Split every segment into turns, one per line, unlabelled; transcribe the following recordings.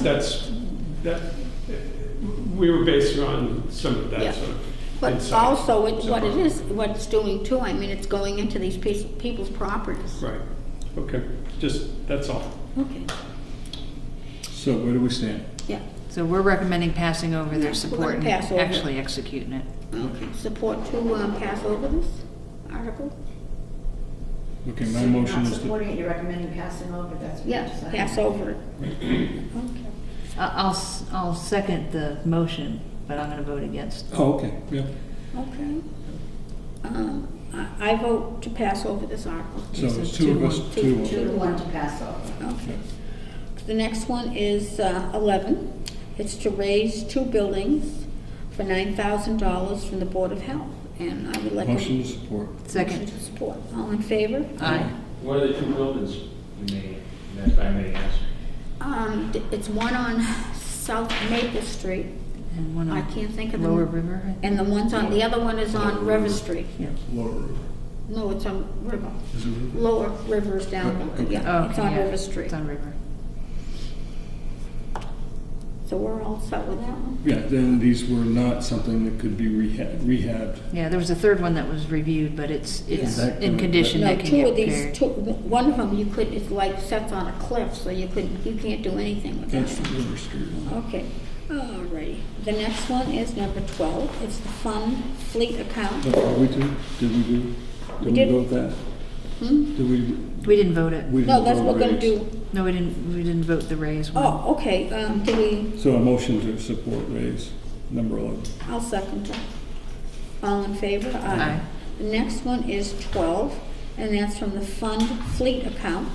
that's, that, we were basing on some of
Yeah.
that sort of
But
insight.
also, it- what it
So-
is, what it's doing too, I mean, it's going into these peo- people's properties.
Right, okay, just, that's all.
Okay,
So where do we stand?
yeah,
So we're recommending passing over
Yeah, we're
their support and
gonna pass over it.
actually executing it.
okay. Support to um, pass over this article?
Okay,
So
my
you're
motion
not
is to,
supporting it, you're recommending passing over, that's what you're
Yeah,
saying?
pass over it. Okay.
I- I'll, s- I'll second the motion, but I'm gonna vote against.
oh, okay, yeah.
Okay. Um, I I vote to pass over this article.
So
So
it's two of us,
two,
two,
Two
of us.
to one to pass over.
Okay. The next one is uh, 11. It's to raise two buildings for $9,000 from the Board of Health, and I would like a...
Motion to support.
motion
Second.
to support. All in favor?
Aye.
What are the two buildings, you may, if I may ask?
Um, th- It's one on South Maple Street,
And one
I
on
can't think of the...
Mm-hmm. Lower River, I think.
And the one's on, the other one is on River Street.
Yeah.
Lower River.
No, it's on River.
Is it River? Oh,
Lower River is down,
Okay.
yeah, it's
Oh, Okay,
on
yeah,
River Street.
It's on River.
So we're all set with that one?
Yeah, then these were not something that could be reha- rehabbed.
Yeah, there was a third one that was reviewed, but it's, it's
Yeah. That-
in condition
No,
that can
two
get
of these,
repaired.
two, one of them you could, it's like sets on a cliff, so you couldn't, you can't do anything with that.
That's the
one.
River Street one.
Okay, all righty. The next one is number twelve, it's the fund fleet account.
But are we do, did we do,
We
did we
did-
go with that?
Hmm?
Did we?
We didn't vote it.
we
No,
didn't
that's
go
what we're gonna
raise.
do.
No, we didn't, we didn't vote the raise one.
Oh, okay, um, do we,
So a motion to support raise number 11.
I'll second that. All in favor?
Aye.
The next one is twelve, and that's from the fund fleet account.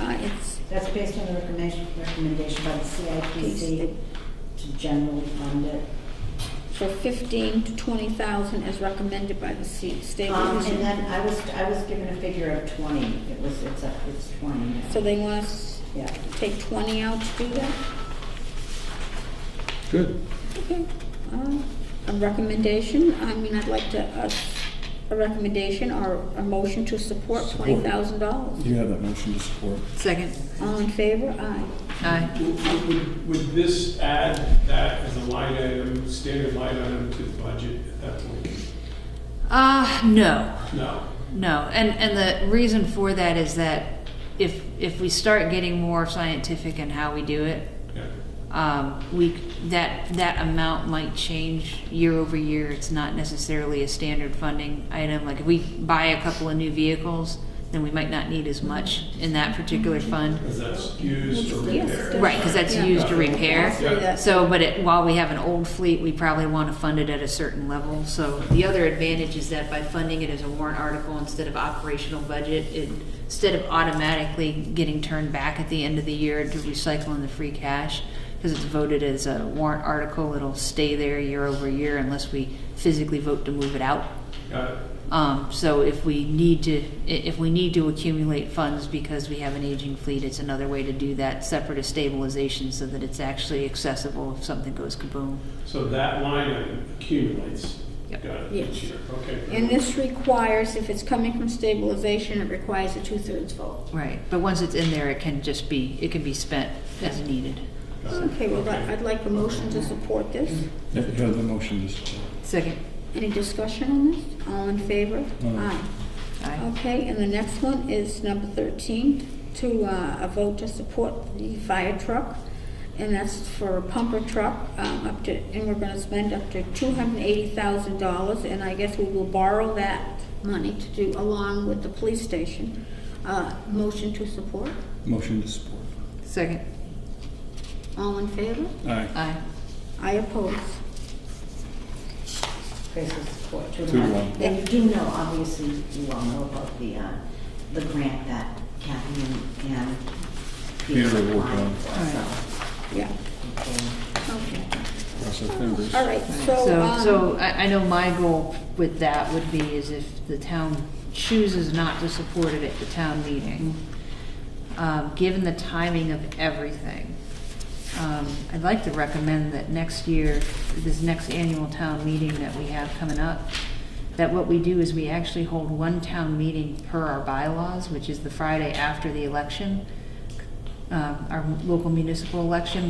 Uh, it's
That's based on the recommendation, recommendation by the CIPC to generally fund it.
for fifteen to twenty thousand as recommended by the C- state
Um, and
revision.
then I was, I was given a figure of twenty, it was, it's up, it's twenty now.
So they want us
Yeah,
to take twenty out to do that?
Good.
Okay. Uh, A recommendation, I mean, I'd like to, uh, a recommendation or a motion to support
Support.
twenty thousand dollars.
You have that motion to support.
Second.
All in favor? Aye.
Aye.
Would- Would, would this add that as a line item, standard line item to the budget at that point?
Uh, no.
No.
No, and, and the reason for that is that if, if we start getting more scientific in how we do it,
Yeah.
um, we, that, that amount might change year over year. It's not necessarily a standard funding item. Like if we buy a couple of new vehicles, then we might not need as much in that particular fund.
Because that's used for
Yes,
repair.
Right, because that's used to repair.
Say that.
So, but it, while we have an old fleet, we probably want to fund it at a certain level. So the other advantage is that by funding it as a warrant article instead of operational budget, it, instead of automatically getting turned back at the end of the year to recycle in the free cash, because it's voted as a warrant article, it'll stay there year over year unless we physically vote to move it out.
Got it.
Um, so if we need to, i- if we need to accumulate funds because we have an aging fleet, it's another way to do that, separate of stabilization, so that it's actually accessible if something goes kaboom.
So that line item accumulates.
Yep.
Got it,
Yes.
each year, okay.
And this requires, if it's coming from stabilization, it requires a two-thirds vote.
Right, but once it's in there, it can just be, it can be spent as needed.
Okay, well, I- I'd like a motion to support this.
You have the motion to support.
Second.
Any discussion on this? All in favor?
Aye.
Aye.
Okay, and the next one is number 13, to uh, a vote to support the fire truck, and that's for a pumper truck, um, up to, and we're going to spend up to $280,000, and I guess we will borrow that money to do, along with the police station. Uh, Motion to support,
Motion to support.
Second.
all in favor?
Aye.
Aye.
I oppose.
Grace will support, two to
Two to
one.
one.
And you do know, obviously, you all know about the, uh, the grant that Kathy and, and Peter
Peter will work
applied
on.
for,
Yeah,
so, okay.
okay.
Cross our fingers.
All right, so,
So,
um...
so I, I know my goal with that would be is if the town chooses not to support it at the town meeting, um, given the timing of everything, um, I'd like to recommend that next year, this next annual town meeting that we have coming up, that what we do is we actually hold one town meeting per our bylaws, which is the Friday after the election, um, our local municipal election,